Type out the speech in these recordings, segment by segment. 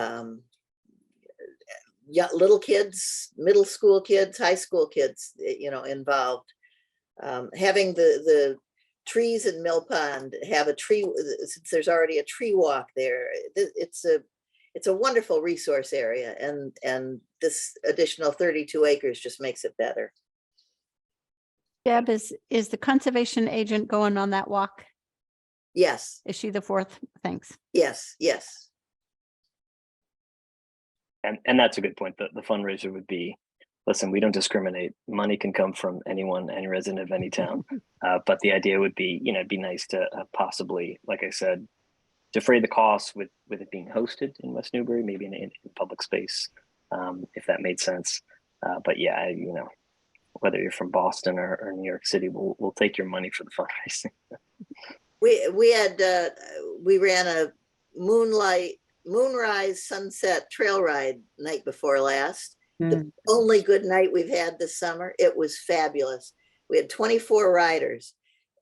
um, yeah, little kids, middle school kids, high school kids, eh, you know, involved. Um, having the, the trees in Mill Pond have a tree, uh, since there's already a tree walk there, it- it's a, it's a wonderful resource area and, and this additional thirty-two acres just makes it better. Deb, is, is the conservation agent going on that walk? Yes, Is she the fourth? Thanks. yes, yes, And, and that's a good point. The, the fundraiser would be, listen, we don't discriminate. Money can come from anyone, any resident of any town. Uh, but the idea would be, you know, it'd be nice to uh, possibly, like I said, defray the costs with, with it being hosted in West Newbury, maybe in, in in public space, um, if that made sense. Uh, but yeah, I- you know, whether you're from Boston or, or New York City, we'll, we'll take your money for the fundraising. We, we had, uh, we ran a moonlight, moonrise sunset trail ride night before last. Hmm. The only good night we've had this summer. It was fabulous. We had twenty-four riders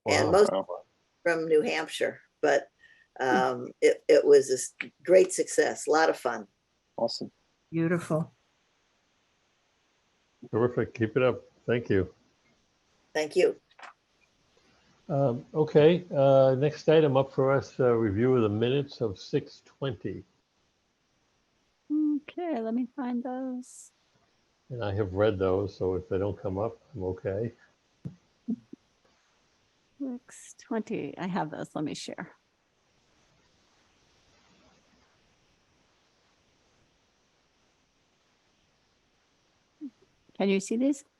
and most Wow. from New Hampshire, but, Hmm. um, it, it was a s- great success, a lot of fun. Awesome. Beautiful. Terrific. Keep it up. Thank you. Thank you. Um, Okay, uh, next item up for us, uh, review of the minutes of 6:20. Okay, let me find those. And I have read those, so if they don't come up, I'm okay. Six twenty, I have those. Let me share. Can you see these?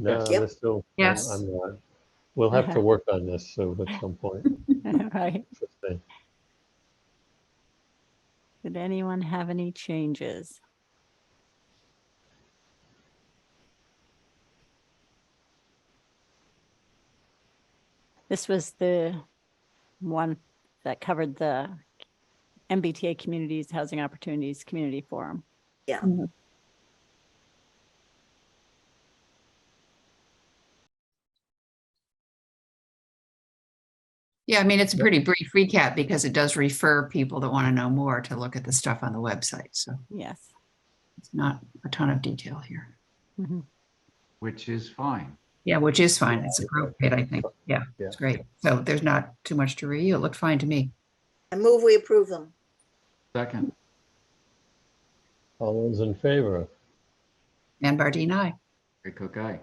No, Yep. they're still. I'm- Yes. I'm not. We'll have to work on this, so at some point. Right. Interesting. Did anyone have any changes? This was the one that covered the MBTA Communities Housing Opportunities Community Forum. Yeah, I mean, it's a pretty brief recap because it does refer people that want to know more to look at the stuff on the website. So Yes. it's not a ton of detail here. Mhm. Which is fine. Yeah, which is fine. It's appropriate, I think. Yeah, it's great. So there's not too much to review. It looked fine to me. I move we approve them. Second, All those in favor? Van Bardine, aye. Ray Cook, aye.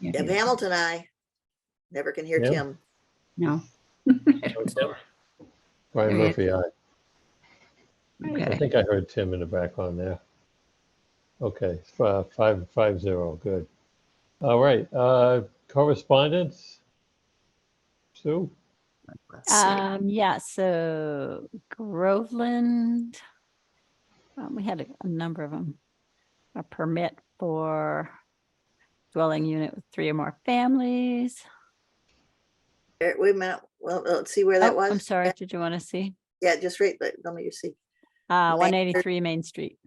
Yeah, Hmm. Deb Hamilton, I never can hear Yeah. Tim. No. Brian Right. Murphy, aye. I Okay. think I heard Tim in the background there. Okay, it's fi- five, five zero, good. All right, uh, correspondence? Sue? Let's see. Um, yeah, so Groveland, um, we had a, a number of them. A permit for dwelling unit with three or more families. Er, Wait a minute, well, let's see where that Oh, was. I'm sorry, did you want to see? Yeah, just right, let let me see. Uh, Main- one eighty-three Main Street.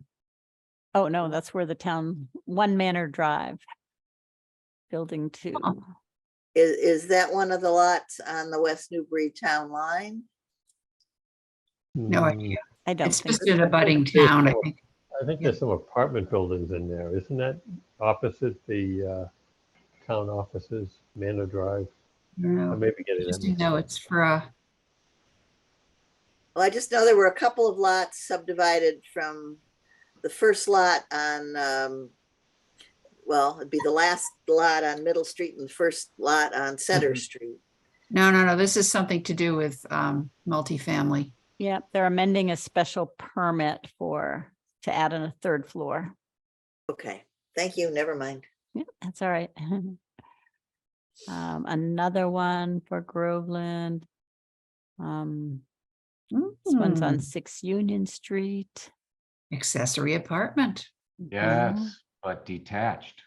Oh, Mm. no, that's where the town, One Manor Drive. Building two. Is, is that one of the lots on the West Newbury Town line? No Hmm, idea. I don't It's think, just an abutting town, I think. I think there's some apartment buildings in there, isn't that opposite the, uh, town offices, Manor Drive? I No, may be getting Just that. to mixed know up. it's for, uh, Well, I just know there were a couple of lots subdivided from the first lot on, um, well, it'd be the last lot on Middle Street and the first lot on Center Mhm. Street. no, no, no, this is something to do with um, multifamily. yeah, they're amending a special permit for, to add in a third floor. Okay, thank you, never mind. Yeah, that's all right. Um, another one for Groveland. Um, Mm. this one's Hmm. on Six Union Street. Accessory apartment. Mm-hmm. Yes, but detached.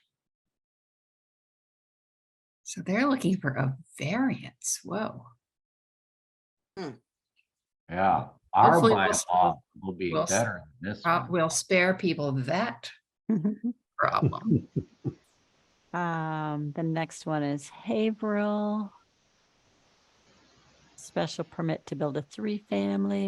So they're looking for a variance. Whoa. Yeah, our Hopefully we'll- bylaw will be we'll s- better than this Uh, one. We'll spare people that problem. Um, the next one is Haverhill. special permit to build a three-family